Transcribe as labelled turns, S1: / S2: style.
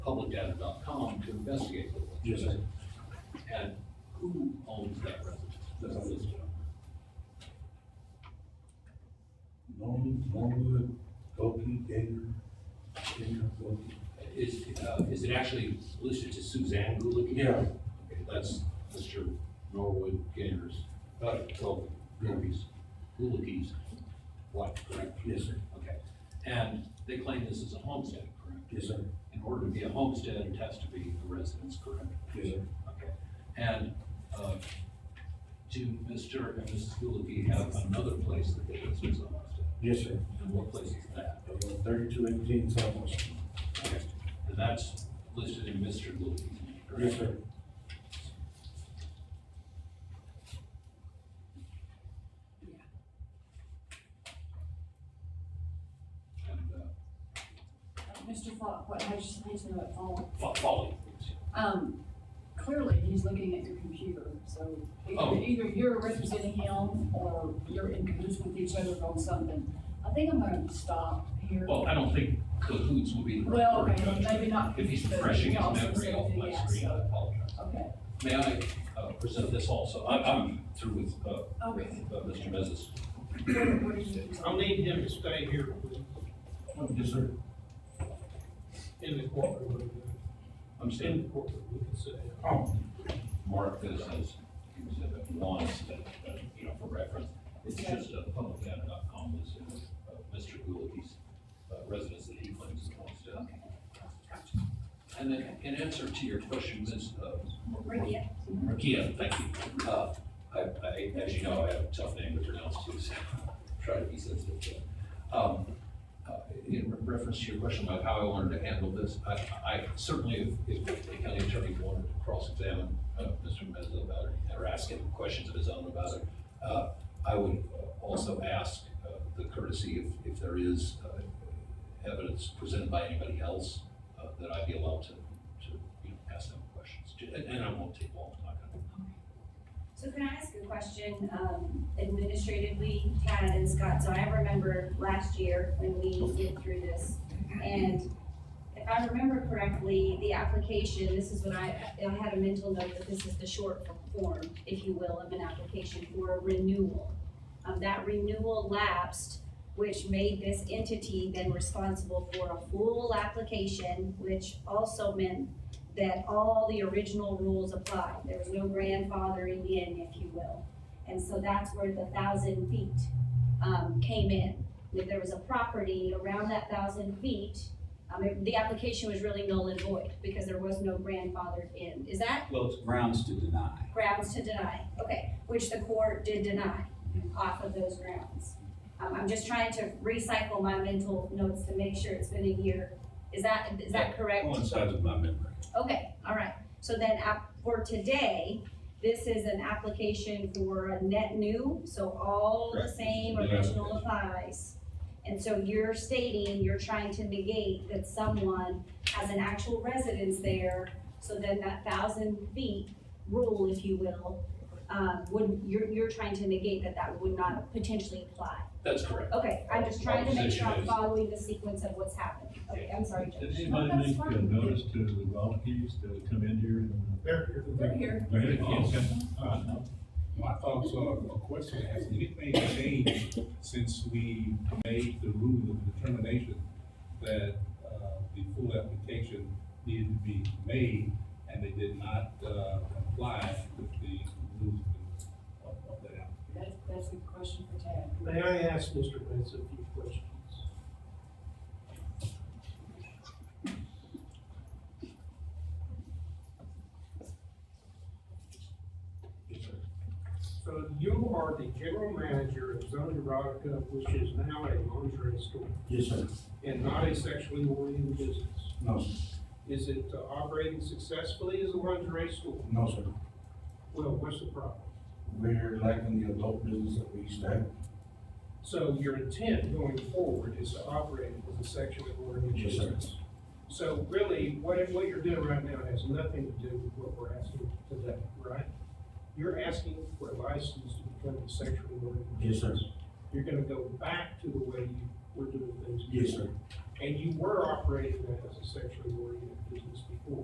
S1: publicdata.com to investigate.
S2: Yes, sir.
S1: And who owns that residence? that's listed on there?
S2: Norman, Norwood, Goki, Gator, Gator, Goki.
S1: Is, uh, is it actually listed to Suzanne Gulick?
S2: Yeah.
S1: Okay, that's Mr. Norwood Gators, uh, well, Gullick's, Gulick's, what, correct?
S2: Yes, sir.
S1: Okay, and they claim this is a homestead, correct?
S2: Yes, sir.
S1: In order to be a homestead, it has to be a residence, correct?
S2: Yes, sir.
S1: Okay, and, uh, do Mr. and Mrs. Gulick have another place that they list as a homestead?
S2: Yes, sir.
S1: And what place is that?
S2: Thirty-two eighteen South Washington.
S1: Okay, And that's listed in Mr. Gulic's name, correct?
S2: Yes, sir.
S1: And, uh,
S3: Mr. Falk, what, I just need to know what Falk,
S1: Fo- Folly.
S3: um, clearly he's looking at your computer, so
S1: Oh.
S3: either, either you're representing him or you're in cahoots with each other on something. I think I'm gonna stop here.
S1: Well, I don't think cahoots would be the right
S3: Well,
S1: word.
S3: okay,
S1: Judge.
S3: maybe not.
S1: If he's
S3: but
S1: refreshing his
S3: also
S1: memory off my
S3: something,
S1: screen,
S3: yes.
S1: I apologize.
S3: Okay,
S1: May I uh, present this also? I'm, I'm through with, uh, with,
S3: okay.
S1: uh, Mr. Mezis.
S3: What- what do you-
S4: I'll need him to stay here
S2: Yes, sir.
S4: in the courtroom.
S1: I'm
S4: In
S1: saying,
S4: the courtroom, we can sit down.
S2: Oh,
S1: mark this as exhibit one, so that, uh, you know, for reference. It's
S3: Okay.
S1: just a public data dot com list of uh, Mr. Gulicki's uh, residence that he claims is homestead.
S3: Okay.
S1: And then in answer to your question, Ms. uh,
S3: Ricky,
S1: Markia, thank you. Uh, I, I, as you know, I have a tough name to pronounce too, so try to be sensitive to it. Um, uh, In re- reference to your question about how I wanted to handle this, I, I certainly, if if the county attorney wanted to cross-examine uh, Mr. Mezza about it, or ask him questions of his own about it, uh, I would uh, also ask uh, the courtesy if, if there is uh, evidence presented by anybody else uh, that I'd be allowed to, to, you know, ask them questions. Ju- And and I won't take long, I'm not gonna.
S5: So can I ask a question, um, administratively, Tad and Scott, so I remember last year when we did through this, and if I remember correctly, the application, this is what I, I had a mental note that this is the short form, if you will, of an application for a renewal. Um, that renewal lapsed, which made this entity then responsible for a full application, which also meant that all the original rules apply. There was no grandfathering in, if you will. And so that's where the thousand feet, um, came in. If there was a property around that thousand feet, um, it- the application was really null and void because there was no grandfathered in. Is that
S6: Well, it's grounds to deny.
S5: grounds to deny? Okay, which the court did deny off of those grounds. Um, I'm just trying to recycle my mental notes to make sure it's been a year. Is that, is that correct?
S6: Coincides with my memory.
S5: Okay, all right. So then app- for today, this is an application for a net new, so all the
S6: Correct.
S5: same
S6: Yeah.
S5: original applies. And so you're stating, you're trying to negate that someone has an actual residence there, so then that thousand feet rule, if you will, um, would, you're, you're trying to negate that that would not potentially apply.
S1: That's correct.
S5: Okay, I'm just trying to make sure
S1: Proposition
S5: I'm
S1: is-
S5: following the sequence of what's happening. Okay, I'm sorry, Judge.
S7: Did anybody make a notice to the Rockies to come in here and? Oh,
S4: There,
S3: we're here.
S7: They can't
S8: My thoughts are, a question, has anything changed since we made the rule of determination that, uh, the full application needed to be made, and they did not, uh, comply with the rules of, of that application?
S3: That's, that's a question for Tad.
S4: May I ask Mr. Vance a few questions?
S2: Yes, sir.
S4: So you are the general manager of Zone Erotica, which is now a lingerie store
S2: Yes, sir.
S4: and not a sexually oriented business.
S2: No, sir.
S4: Is it uh, operating successfully as a lingerie store?
S2: no, sir.
S4: Well, what's the problem?
S2: We're lacking the adult business that we used to have.
S4: So your intent going forward is to operate as a sexually oriented
S2: Yes, sir.
S4: business? So really, what, what you're doing right now has nothing to do with what we're asking today, right? You're asking for a license to become a sexually oriented
S2: Yes, sir.
S4: business. You're gonna go back to the way you were doing things.
S2: Yes, sir.
S4: And you were operating that as essentially a business